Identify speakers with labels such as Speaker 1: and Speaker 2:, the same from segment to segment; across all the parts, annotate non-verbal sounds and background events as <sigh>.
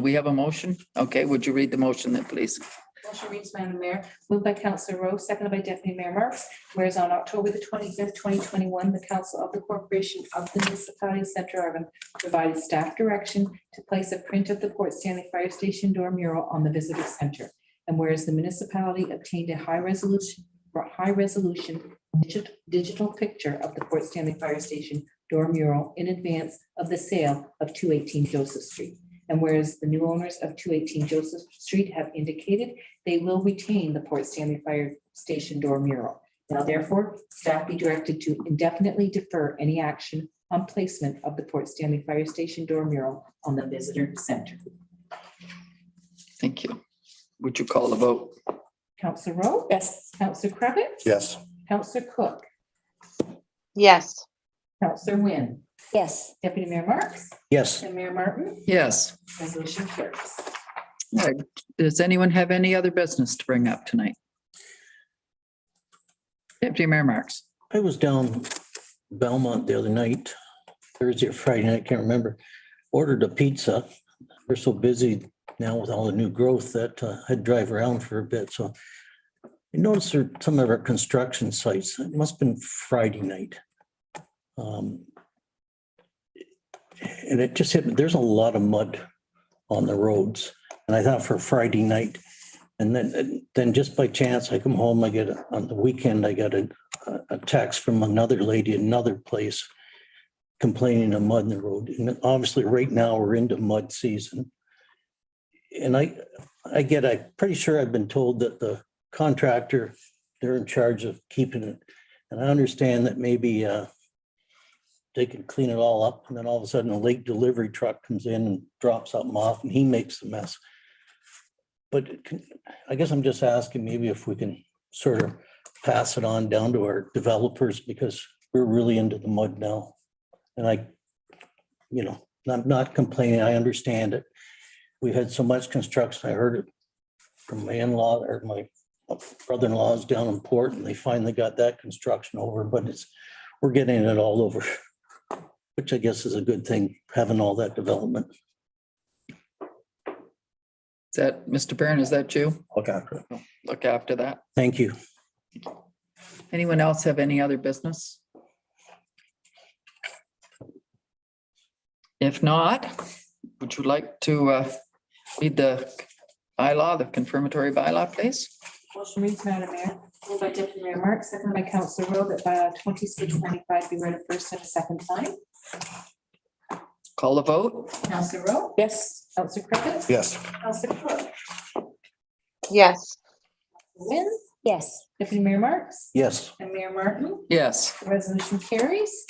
Speaker 1: We have a motion? Okay, would you read the motion then, please?
Speaker 2: Motion reads, Madam Mayor, moved by Councilor Rowe, seconded by Deputy Mayor Marks, whereas on October the twenty-fifth, twenty twenty-one, the Council of the Corporation of the Municipality of Central Urban provided staff direction to place a print of the Port Stanley Fire Station door mural on the visitor center. And whereas the municipality obtained a high resolution, high resolution digit- digital picture of the Port Stanley Fire Station door mural in advance of the sale of two eighteen Joseph Street. And whereas the new owners of two eighteen Joseph Street have indicated they will retain the Port Stanley Fire Station door mural. Now therefore, staff be directed to indefinitely defer any action on placement of the Port Stanley Fire Station door mural on the visitor center.
Speaker 1: Thank you. Would you call the vote?
Speaker 2: Council Rowe? Yes. Council Kravitz,
Speaker 3: Yes.
Speaker 2: Council Cook?
Speaker 4: yes,
Speaker 2: Council Wynne?
Speaker 5: yes,
Speaker 2: Deputy Mayor Marks?
Speaker 3: Yes.
Speaker 2: And Mayor Martin?
Speaker 1: Yes.
Speaker 2: Resolution carries.
Speaker 1: All right. Does anyone have any other business to bring up tonight? Deputy Mayor Marks.
Speaker 3: I was down Belmont the other night, Thursday or Friday, night, I can't remember. Ordered a pizza. We're so busy now with all the new growth that uh, I'd drive around for a bit, so. I noticed there, some of our construction sites, it must have been Friday night. Um, And it just hit, me. there's a lot of mud on the roads. And I thought for Friday night, and then, then just by chance, I come home, I get, a- on the weekend, I got a a- a text from another lady, in another place complaining of mud in the road. And obviously, right now, we're into mud season. And I, I get, I'm pretty sure I've been told that the contractor, they're in charge of keeping it. And I understand that maybe uh, they can clean it all up and then all of a sudden a late delivery truck comes in and drops something off and he makes the mess. But it can- I guess I'm just asking maybe if we can sort of pass it on down to our developers because we're really into the mud now. And I, you know, I'm not complaining. I understand it. We've had so much construction. I heard it from my in-law or my brother-in-law's down in Port and they finally got that construction over, but it's, we're getting it all over. Which I guess is a good thing, having all that development.
Speaker 1: Is that, Mr. Barron, is that you?
Speaker 3: Okay.
Speaker 1: Look after that.
Speaker 3: Thank you.
Speaker 1: Anyone else have any other business? If not, would you like to uh, read the bylaw, the confirmatory bylaw, please?
Speaker 2: Motion reads, Madam Mayor, moved by Deputy Mayor Marks, seconded by Council Rowe, that bylaw twenty-six ninety-five be read a first and a second time.
Speaker 1: Call the vote?
Speaker 2: Council Rowe? Yes. Council Kravitz,
Speaker 3: Yes.
Speaker 2: Council Cook?
Speaker 4: yes,
Speaker 2: Wynne?
Speaker 5: yes,
Speaker 2: Deputy Mayor Marks?
Speaker 3: Yes.
Speaker 2: And Mayor Martin?
Speaker 1: Yes.
Speaker 2: The Resolution carries.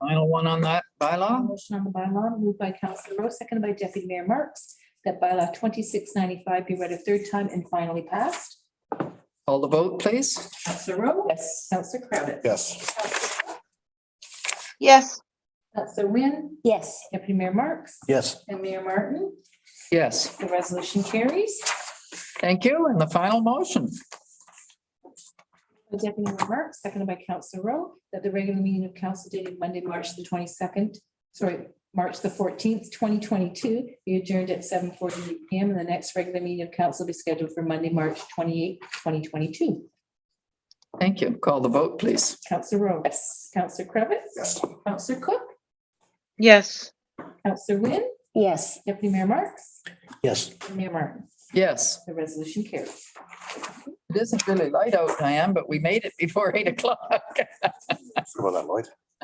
Speaker 1: Final one on that
Speaker 5: Oh.
Speaker 1: bylaw?
Speaker 2: Motion on the bylaw moved by Councilor Rowe, seconded by Deputy Mayor Marks, that bylaw twenty-six ninety-five be read a third time and finally passed.
Speaker 1: Call the vote, please?
Speaker 2: Councilor Rowe? Yes. Councilor Kravitz,
Speaker 3: Yes.
Speaker 4: yes,
Speaker 2: Councilor Wynn?
Speaker 5: yes,
Speaker 2: Deputy Mayor Marks?
Speaker 3: Yes.
Speaker 2: And Mayor Martin?
Speaker 1: Yes,
Speaker 2: The resolution carries.
Speaker 1: thank you. And the final motion?
Speaker 2: By Deputy Mayor Marks, seconded by Councilor Rowe, that the regular meeting of council dated Monday, March the twenty-second, sorry, March the fourteenth, twenty twenty-two, be adjourned at seven forty-eight PM, and the next regular meeting of council be scheduled for Monday, March twenty-eighth, twenty twenty-two.
Speaker 1: Thank you. Call the vote, please.
Speaker 2: Councilor Rowe. Yes. Councilor Cravitz. Yes. Councilor Cook.
Speaker 4: yes,
Speaker 2: Councilor Wynn.
Speaker 5: yes.
Speaker 2: Deputy Mayor Marks.
Speaker 3: Yes.
Speaker 2: and Mayor Martin.
Speaker 1: Yes,
Speaker 2: The resolution carries.
Speaker 1: <laughs> it isn't really light out, Diane, but we made it before eight o'clock.
Speaker 3: About that light.